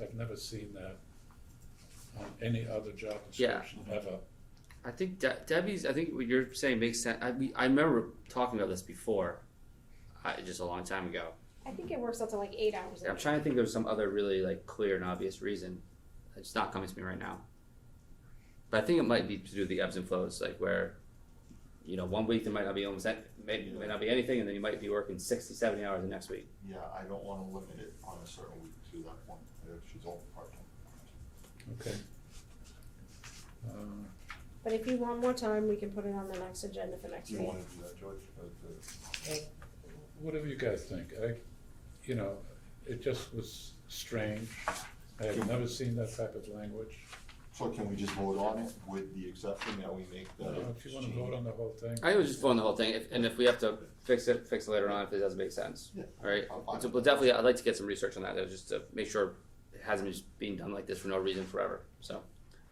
I've never seen that on any other job Yeah. description ever. I think De- Debbie's. I think what you're saying makes sense. I we, I remember talking about this before, I, just a long time ago. I think it works out to like eight hours. I'm trying to think. There's some other really like clear and obvious reason. It's not coming to me right now. But I think it might be to do with the ebbs and flows, like where, you know, one week there might not be almost that, may, may not be anything, and then you might be working 60, 70 hours the next week. Yeah, I don't wanna limit it on a certain week to that one, if she's all part-time. Okay. Uh, But if you want more time, we can put it on the next agenda for next Do you week. wanna do that, George? Uh, the- Whatever you guys think, I, you know, it just was strange. I have never seen that type of language. So can we just vote on it with the exception that we make Uh, that? If you wanna vote on the whole thing. I would just vote on the whole thing, if, and if we have to fix it, fix it later on if it doesn't make sense. Yeah. All right. I'm fine. So, But definitely, I'd like to get some research on that, though, just to make sure it hasn't been just being done like this for no reason forever. So, all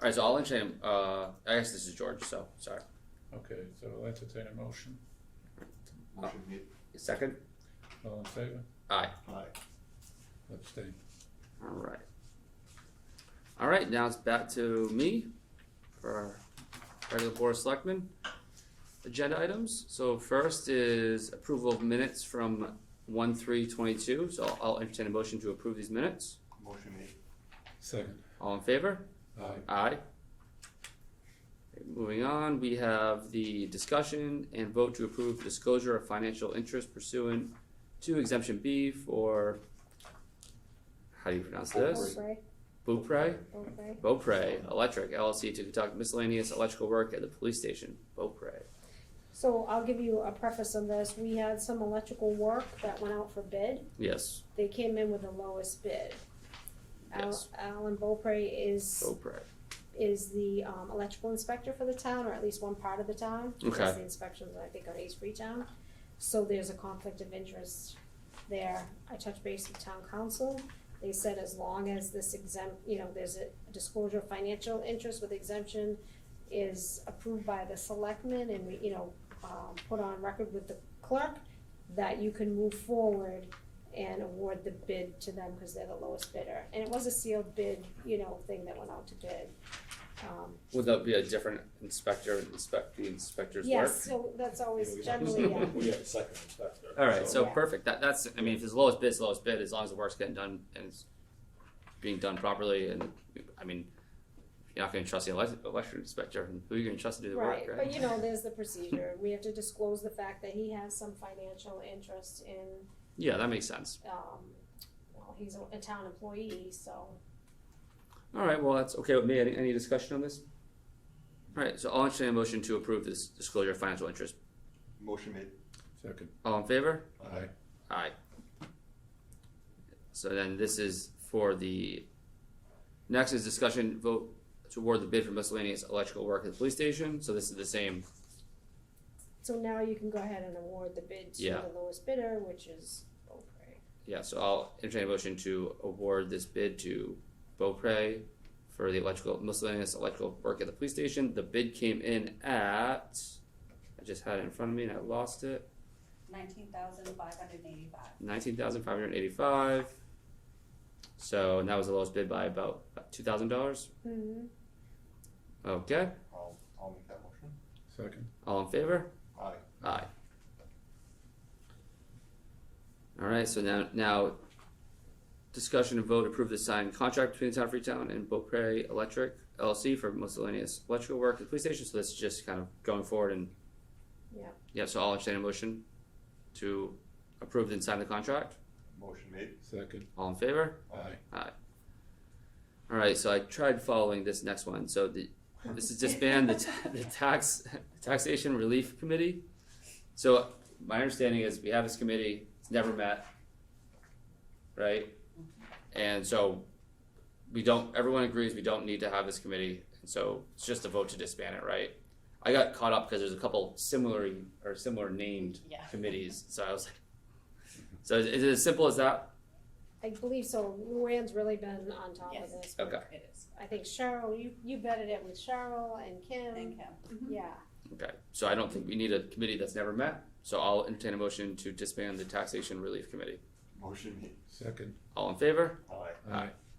right. So I'll entertain. Uh, I guess this is George. So sorry. Okay, so I'll entertain a motion. Motion made, Second. All in favor? Aye. aye. Abstain. All right. All right. Now it's back to me for our regular board of selectmen agenda items. So first is approval of minutes from one three twenty two. So I'll- I'll entertain a motion to approve these minutes. Motion made, Second. All in favor? Aye. Aye. Moving on, we have the discussion and vote to approve disclosure of financial interest pursuant to exemption B for, how do you pronounce this? Beaupre, Beaupre? Beaupre. Beaupre Electric LLC to conduct miscellaneous electrical work at the police station, Beaupre. So I'll give you a preface of this. We had some electrical work that went out for bid. Yes, They came in with the lowest bid. Al- Yes. Oh, Alan Beaupre is, Beaupre. is the um, electrical inspector for the town, or at least one part of the town. He does Okay. The inspections, I think, on East Freetown. So there's a conflict of interest there. I touched base with town council. They said as long as this exempt, you know, there's a disclosure of financial interest with exemption is approved by the selectmen and we, you know, um, put on record with the clerk, that you can move forward and award the bid to them because they're the lowest bidder. And it was a sealed bid, you know, thing that went out to bid. Um, Would that be a different inspector, inspect the inspector's work? Yes, so that's always Yeah, we have- generally, yeah. We have a second inspector. Alright, so Yeah. perfect, that, that's, I mean, if it's lowest bid, it's lowest bid, as long as the work's getting done and it's being done properly, and, I mean, you're not gonna trust the elec- electric inspector, and who are you gonna trust to do the work, Right, right? but you know, there's the procedure. We have to disclose the fact that he has some financial interest in, Yeah, that makes sense, um, well, he's a, a town employee, so. alright, well, that's okay with me, any, any discussion on this? Alright, so I'll entertain a motion to approve this disclosure of financial interest, motion made, Second. all in favor? Aye. Aye. So then this is for the, next is discussion vote to award the bid for miscellaneous electrical work at the police station, so this is the same So now you can go ahead and award the bid to Yeah. the lowest bidder, which is Beaupre. Yeah, so I'll entertain a motion to award this bid to Beaupre for the electrical, miscellaneous electrical work at the police station. The bid came in at, I just had it in front of me and I lost it, nineteen thousand five hundred eighty-five. nineteen thousand five hundred eighty-five. So, and that was the lowest bid by about two thousand dollars. Mm-hmm. Okay, I'll, I'll make that motion, Second. all in favor? aye. Aye. Alright, so now, now, discussion and vote to approve the signed contract between the town of Freetown and Beaupre Electric LLC for miscellaneous electrical work at the police station, so that's just kind of going forward and. Yeah. Yeah, so I'll entertain a motion to approve and sign the contract, Motion made, Second. all in favor? Aye. All right, so I tried following this next one. So the this is disband the, ta- the tax taxation relief committee. So my understanding is we have this committee. It's never met, right? And so we don't. Everyone agrees we don't need to have this committee. And so it's just a vote to disband it, right? I got caught up because there's a couple similar or similar named Yeah. committees. So I was like, so is it as simple as that? I believe so. Luann's really been on top of Yes. this. Okay. It is. I think Cheryl, you, you vetted it with Cheryl and Kim. Thank Mm-hmm. him. Yeah, Okay, so I don't think we need a committee that's never met, so I'll entertain a motion to disband the taxation relief committee. motion made, Second. All in favor? aye. Aye.